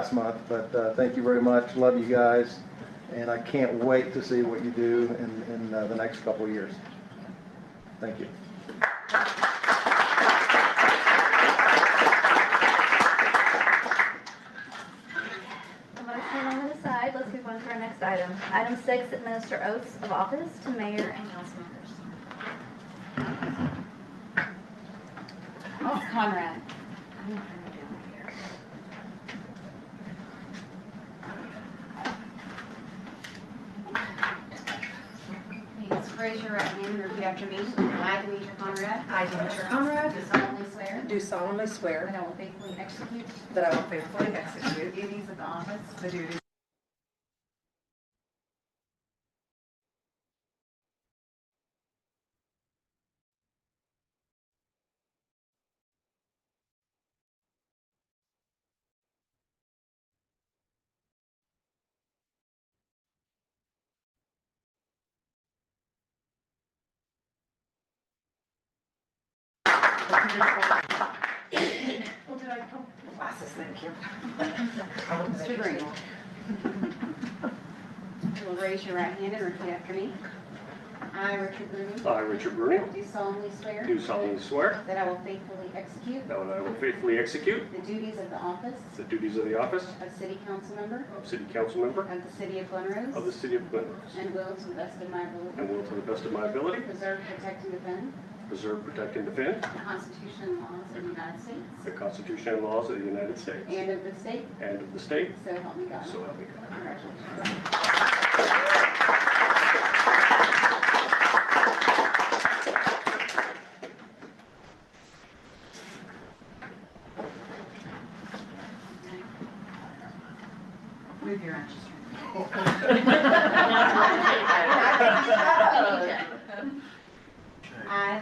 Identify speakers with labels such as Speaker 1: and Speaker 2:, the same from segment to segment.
Speaker 1: last month, but uh, thank you very much. Love you guys. And I can't wait to see what you do in, in uh, the next couple of years. Thank you.
Speaker 2: The motion on the side, let's move on to our next item. Item six, administer oaths of office to mayor and council members.
Speaker 3: Oh, Conrad. Please raise your right hand and repeat after me. I, Demetra Conrad,
Speaker 4: I, Demetra Conrad,
Speaker 3: do solemnly swear
Speaker 4: do solemnly
Speaker 3: that
Speaker 4: swear
Speaker 3: I will faithfully execute
Speaker 4: that I will faithfully
Speaker 3: the
Speaker 4: execute
Speaker 3: duties of the office
Speaker 4: the duties Well, did I come? Glasses, thank you.
Speaker 3: Mr. Green. You will raise your right hand and repeat after me. I, Richard Green,
Speaker 5: I, Richard Bruno,
Speaker 3: do solemnly swear
Speaker 5: do solemnly swear
Speaker 3: that I will faithfully execute
Speaker 5: that I will faithfully execute
Speaker 3: the duties of the office
Speaker 5: the duties of the office
Speaker 3: of city council member
Speaker 5: of City Council Member
Speaker 3: of the city of Glen
Speaker 5: of the
Speaker 3: Rose
Speaker 5: City of Glen Rose,
Speaker 3: and will to the best of my
Speaker 5: and
Speaker 3: ability
Speaker 5: will to the best of my ability
Speaker 3: preserve, protect, and defend
Speaker 5: preserve, protect, and defend
Speaker 3: the Constitution and laws of the United
Speaker 5: the
Speaker 3: States
Speaker 5: Constitution and laws of the United States
Speaker 3: and of the state,
Speaker 5: and of the state,
Speaker 3: so help me God.
Speaker 5: so help me God.
Speaker 3: Congratulations. Move your ashes. I,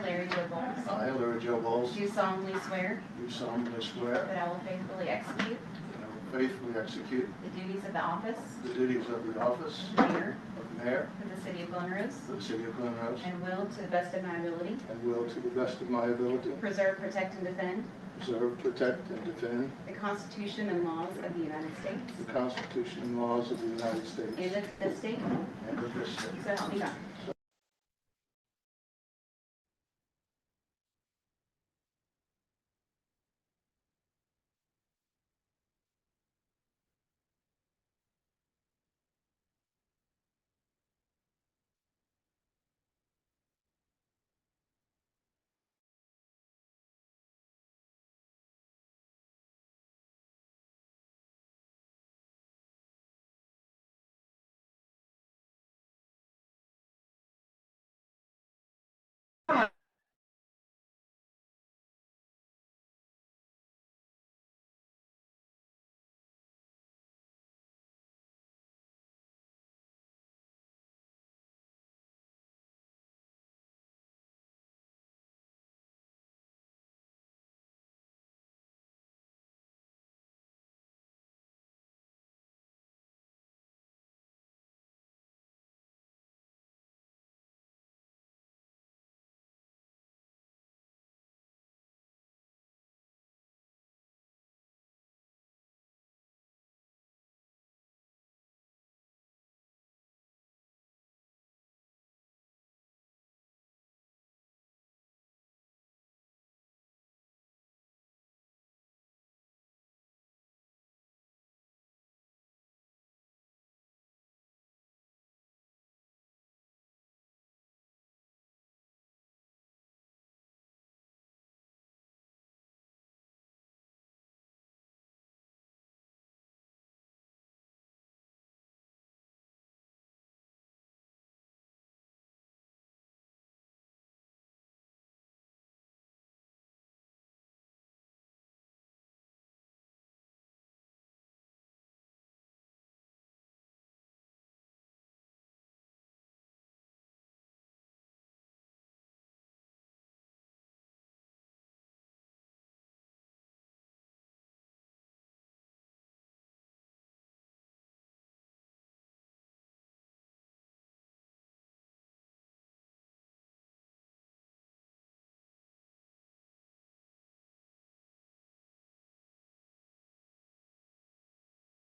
Speaker 3: Larry Wilbon,
Speaker 6: I, Larry Joe Bowles,
Speaker 3: do solemnly swear
Speaker 6: do solemnly swear
Speaker 3: that I will faithfully execute
Speaker 6: that I will faithfully execute
Speaker 3: the duties of the office
Speaker 6: the duties of the office
Speaker 3: of mayor
Speaker 6: of mayor
Speaker 3: for the city of Glen Rose
Speaker 6: for the city of Glen Rose
Speaker 3: and will, to the best of my ability,
Speaker 6: and will, to the best of my ability,
Speaker 3: preserve, protect, and defend
Speaker 6: preserve, protect, and defend
Speaker 3: the Constitution and laws of the United States
Speaker 6: the Constitution and laws of the United States
Speaker 3: and of the state,
Speaker 6: and of this state.
Speaker 3: so help me God.